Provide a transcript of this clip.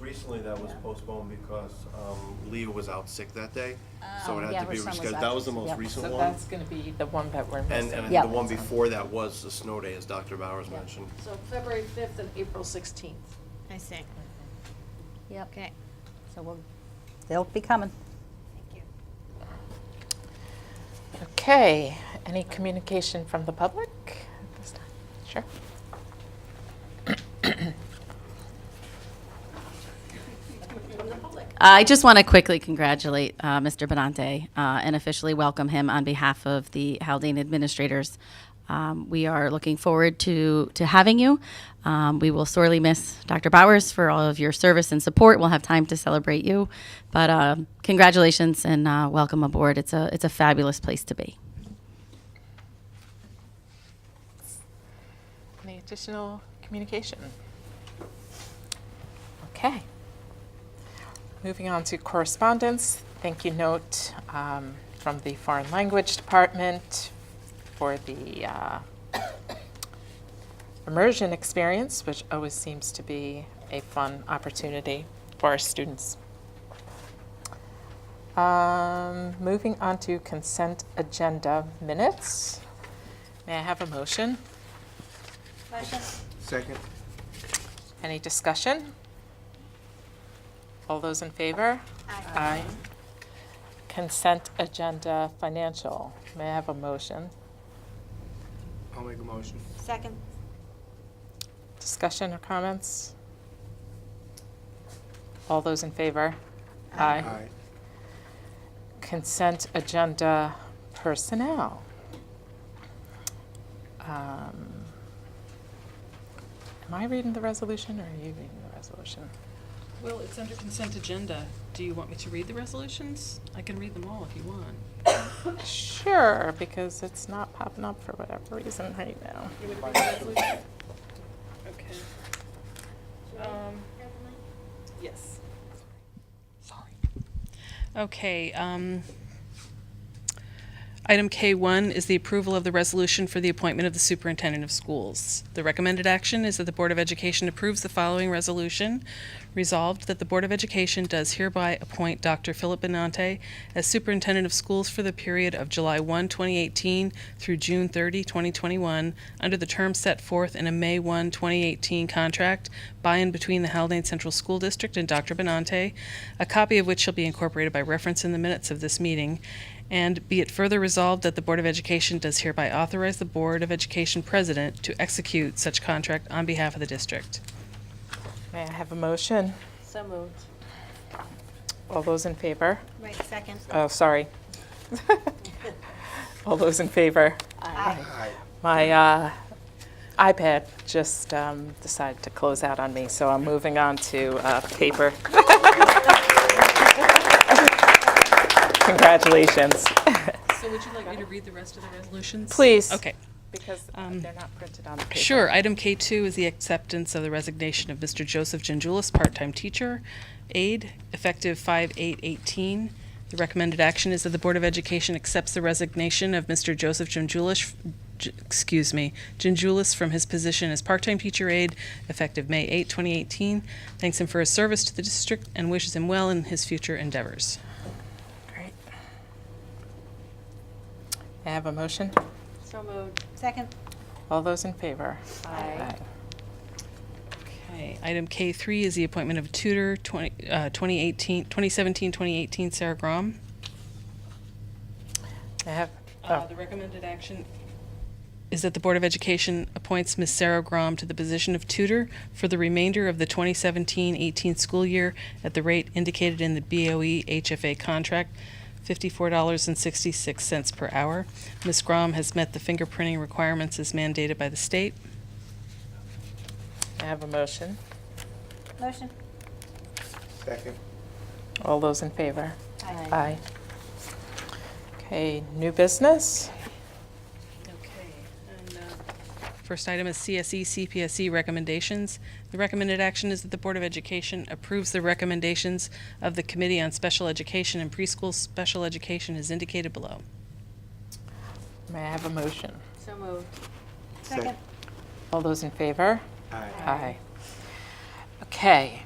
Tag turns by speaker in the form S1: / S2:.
S1: recently that was
S2: Yeah.
S1: postponed because um, Leah was out sick that day, so
S2: Um,
S1: it had
S2: yeah,
S1: to
S2: her
S1: be
S2: son was
S1: rescheduled. That
S2: out.
S1: was the most
S2: Yep.
S1: recent
S3: So
S1: one.
S3: that's gonna be the one that we're
S1: And,
S3: missing.
S1: and I
S2: Yeah.
S1: think the one before that was the snow day, as Dr. Bowers
S2: Yeah.
S1: mentioned.
S4: So February fifth and April sixteenth.
S5: I see.
S2: Yep.
S5: Okay.
S2: So we'll, they'll be coming.
S5: Thank you.
S3: Okay, any communication from the public at this time? Sure.
S6: I just want to quickly congratulate uh, Mr. Benante uh, and officially welcome him on behalf of the Haldane administrators. Um, we are looking forward to, to having you. Um, we will sorely miss Dr. Bowers for all of your service and support. We'll have time to celebrate you. But um congratulations and uh, welcome aboard. It's a, it's a fabulous place to be.
S3: Any additional communication? Okay. Moving on to correspondence, thank you note um, from the Foreign Language Department for the uh, immersion experience, which always seems to be a fun opportunity for our students. Um, Moving on to consent agenda minutes. May I have a motion?
S1: Second.
S3: Any discussion? All those in favor? Aye. Consent agenda financial. May I have a motion?
S1: I'll make a motion.
S5: Second.
S3: Discussion or comments? All those in favor? Aye. Consent agenda personnel. Um, Am I reading the resolution or are you reading the resolution?
S7: Well, it's under consent agenda. Do you want me to read the resolutions? I can read them all if you want.
S3: Sure, because it's not popping up for whatever reason right now.
S7: Okay. Um, Yes. Sorry. Okay, um, item K1 is the approval of the resolution for the appointment of the superintendent of schools. The recommended action is that the Board of Education approves the following resolution. Resolved that the Board of Education does hereby appoint Dr. Philip Benante as superintendent of schools for the period of July 1, 2018 through June 30, 2021, under the terms set forth in a May 1, 2018 contract by and between the Haldane Central School District and Dr. Benante, a copy of which shall be incorporated by reference in the minutes of this meeting. And be it further resolved that the Board of Education does hereby authorize the Board of Education President to execute such contract on behalf of the district.
S3: May I have a motion?
S4: So moved.
S3: All those in favor?
S5: Right, second.
S3: Oh, sorry. All those in favor?
S5: Aye.
S3: My uh, iPad just um, decided to close out on me, so I'm moving on to uh, paper. Congratulations.
S7: So would you like me to read the rest of the resolutions?
S3: Please.
S7: Okay.
S3: Because uh, they're not printed on the paper.
S7: Sure. Item K2 is the acceptance of the resignation of Mr. Joseph Gingulis, part-time teacher, aide, effective 5/8/18. The recommended action is that the Board of Education accepts the resignation of Mr. Joseph Gingulis, G- excuse me, Gingulis from his position as part-time teacher aide, effective May 8, 2018. Thanks him for his service to the district and wishes him well in his future endeavors.
S3: Great. May I have a motion?
S4: So moved.
S5: Second.
S3: All those in favor? Aye.
S7: Okay, item K3 is the appointment of tutor 20, uh, 2018, 2017, 2018, Sarah Grom.
S3: May I have,
S7: Uh,
S3: oh,
S7: The recommended action is that the Board of Education appoints Ms. Sarah Grom to the position of tutor for the remainder of the 2017-18 school year at the rate indicated in the E BOE HFA contract, $54.66 per hour. Ms. Grom has met the fingerprinting requirements as mandated by the state.
S3: may I have a motion?
S5: Motion.
S1: Second.
S3: All those in favor? Aye. Okay, new business?
S7: Okay, and uh, first item is E, CSE CPSE recommendations. The recommended action is that the Board of Education approves the recommendations of the Committee on Special Education and Preschool Special Education as indicated below.
S3: May I have a motion?
S4: So moved.
S5: Second.
S3: All those in favor?
S1: Aye.
S3: Aye. Okay,